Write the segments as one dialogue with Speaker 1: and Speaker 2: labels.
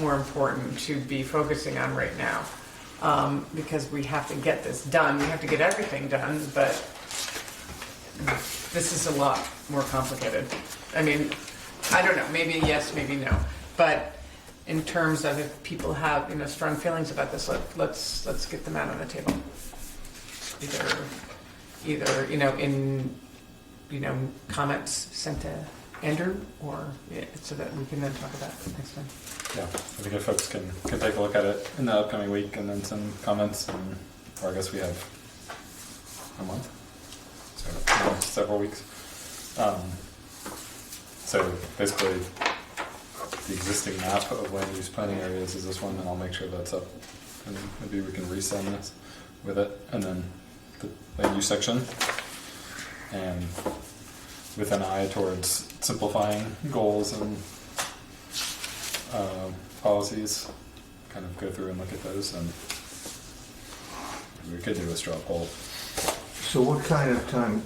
Speaker 1: more important to be focusing on right now. Um, because we have to get this done, we have to get everything done, but this is a lot more complicated. I mean, I don't know, maybe yes, maybe no, but in terms of if people have, you know, strong feelings about this, let, let's, let's get them out on the table. Either, either, you know, in, you know, comments sent to Andrew, or, yeah, so that we can then talk about it next time.
Speaker 2: Yeah, I think if folks can, can take a look at it in the upcoming week and then some comments, and, or I guess we have a month, so you know, several weeks. Um, so basically, the existing map of land use planning areas is this one, and I'll make sure that's up, and maybe we can resend this with it, and then the land use section, and with an eye towards simplifying goals and um, policies, kind of go through and look at those, and we could do a straw poll.
Speaker 3: So what kind of time,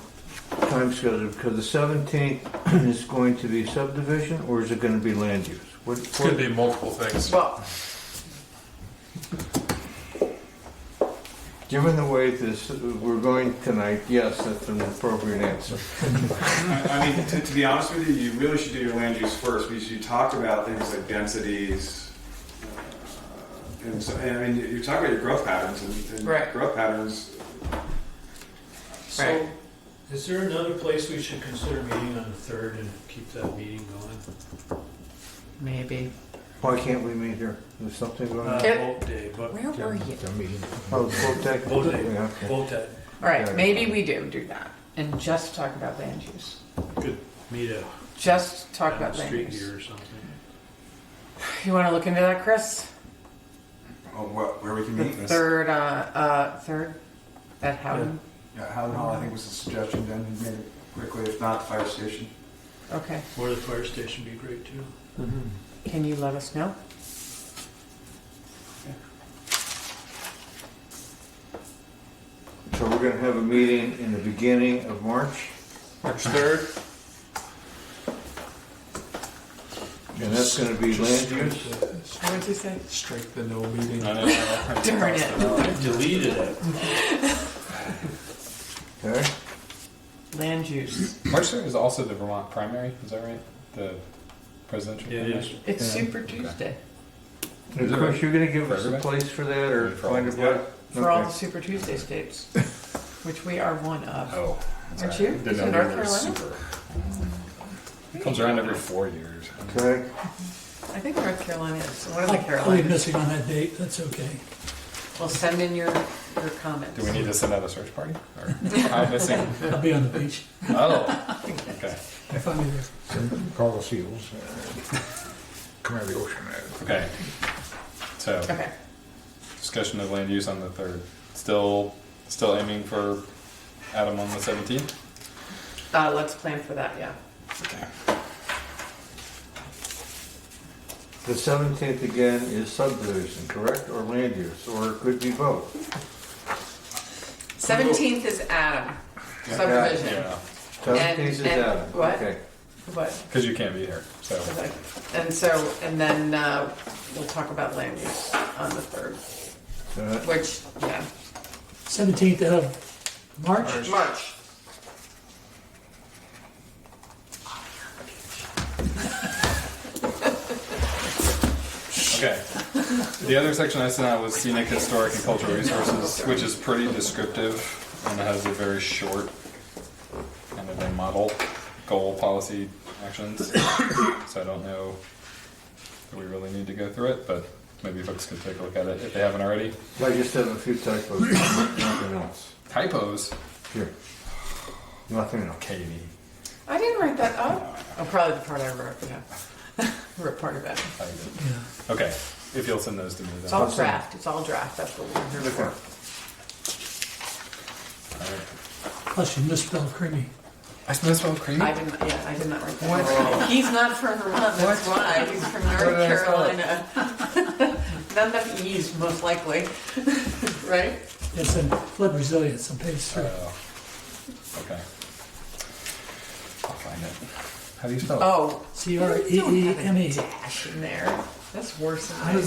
Speaker 3: time schedule, because the seventeenth is going to be subdivision, or is it gonna be land use? What,
Speaker 4: It's gonna be multiple things.
Speaker 1: Well,
Speaker 3: given the way this, we're going tonight, yes, that's an appropriate answer.
Speaker 5: I I mean, to, to be honest with you, you really should do your land use first, because you talk about things like densities. uh, And so, and I mean, you- you talk about your growth patterns and, and
Speaker 1: Right.
Speaker 5: growth patterns.
Speaker 1: Right.
Speaker 6: So, is there another place we should consider meeting on the third and keep that meeting going?
Speaker 1: maybe.
Speaker 3: Why can't we meet here? There's something going
Speaker 6: Uh,
Speaker 3: on?
Speaker 1: It-
Speaker 6: vote day, but,
Speaker 1: Where were you?
Speaker 3: Oh, it's full tech.
Speaker 6: Full day.
Speaker 3: Yeah, okay.
Speaker 6: vote that,
Speaker 1: All right, maybe we do do that, and just talk about land use.
Speaker 6: meet a,
Speaker 1: Just talk
Speaker 6: a
Speaker 1: about land
Speaker 6: street
Speaker 1: use.
Speaker 6: here or something.
Speaker 1: You want to look into that, Chris?
Speaker 5: Oh, what, where we can
Speaker 1: The
Speaker 5: meet?
Speaker 1: third, uh, uh, third, at Howden?
Speaker 5: Yeah, Howland Hall, I think was the suggestion, then he made it quickly, if not, fire station.
Speaker 1: Okay,
Speaker 6: Or the fire station would be great too.
Speaker 2: Mm-hmm.
Speaker 1: can you let us know?
Speaker 3: So we're gonna have a meeting in the beginning of March,
Speaker 4: March third,
Speaker 3: and that's gonna be land use?
Speaker 1: What did you say?
Speaker 4: Strike the no meeting.
Speaker 1: Darn
Speaker 6: I deleted it.
Speaker 3: Okay,
Speaker 1: Land use.
Speaker 2: March 3rd is also the Vermont primary, is that right? The presidential
Speaker 6: It
Speaker 2: primary?
Speaker 6: is.
Speaker 1: It's
Speaker 3: Yeah.
Speaker 1: Super Tuesday.
Speaker 3: and of course, you're gonna give
Speaker 2: For
Speaker 3: us a
Speaker 2: everybody?
Speaker 3: place for that, or
Speaker 2: For all.
Speaker 3: find a place?
Speaker 1: for all the
Speaker 3: Okay.
Speaker 1: Super Tuesday states, which we are one of.
Speaker 2: Oh, that's
Speaker 1: Aren't
Speaker 2: right.
Speaker 1: you?
Speaker 2: Didn't
Speaker 1: Is it
Speaker 2: know
Speaker 1: North
Speaker 2: we were
Speaker 1: Carolina?
Speaker 2: super. It comes around every four years.
Speaker 3: Okay,
Speaker 1: I think North Carolina is one of the
Speaker 7: Probably
Speaker 1: Carolinas.
Speaker 7: missing on that date, that's okay.
Speaker 1: Well, send in your, your comments.
Speaker 2: Do we need to send out a search party? Or I'm missing.
Speaker 7: I'll be on the beach.
Speaker 2: Oh, okay.
Speaker 7: I'll find you there.
Speaker 8: Call the seals. uh, Come out of the ocean.
Speaker 2: Okay. So,
Speaker 1: Okay,
Speaker 2: discussion of land use on the 3rd. Still still aiming for Adam on the 17th?
Speaker 1: uh, let's plan for that, yeah.
Speaker 2: Okay.
Speaker 3: the seventeenth again is subdivision, correct, or land use, or it could be both?
Speaker 1: Seventeenth is Adam, subdivision,
Speaker 2: Yeah.
Speaker 3: Seven
Speaker 1: And-
Speaker 3: pieces
Speaker 1: and-
Speaker 3: out.
Speaker 1: what?
Speaker 3: Okay.
Speaker 1: but,
Speaker 2: Because you can't be here, so.
Speaker 1: and so, and then, uh, we'll talk about land use on the third,
Speaker 3: Uh,
Speaker 1: which, yeah,
Speaker 7: 17th of March?
Speaker 1: March.
Speaker 2: Okay. The other section I sent out was scenic, historic, and cultural resources, which is pretty descriptive and has a very short kind of a model goal policy actions. So I don't know that we really need to go through it, but maybe folks could take a look at it if they haven't already.
Speaker 3: I just have a few typos, nothing else.
Speaker 2: Typos,
Speaker 3: Here. Nothing else.
Speaker 2: Katie.
Speaker 1: I didn't write that up. Oh, probably the part I wrote, yeah. Wrote part of it.
Speaker 2: I did.
Speaker 7: Yeah.
Speaker 2: Okay, if you'll send those to me
Speaker 1: It's
Speaker 2: then.
Speaker 1: all
Speaker 3: Awesome.
Speaker 1: draft, it's all draft, that's what we're here for.
Speaker 2: Alright.
Speaker 7: Plus you misspelled creamy.
Speaker 2: I smell cream.
Speaker 1: I didn't, yeah, I did not write that. up. He's not from Vermont, that's why, he's from North
Speaker 2: did I spell it?
Speaker 1: Carolina. Not enough E's, most likely, right?
Speaker 7: It's in flood resilience on page three.
Speaker 2: Oh, okay. I'll find it. How do you spell it?
Speaker 1: Oh,
Speaker 7: C R E E M E.
Speaker 1: dash in there.
Speaker 9: That's worse than
Speaker 1: How
Speaker 9: I
Speaker 1: does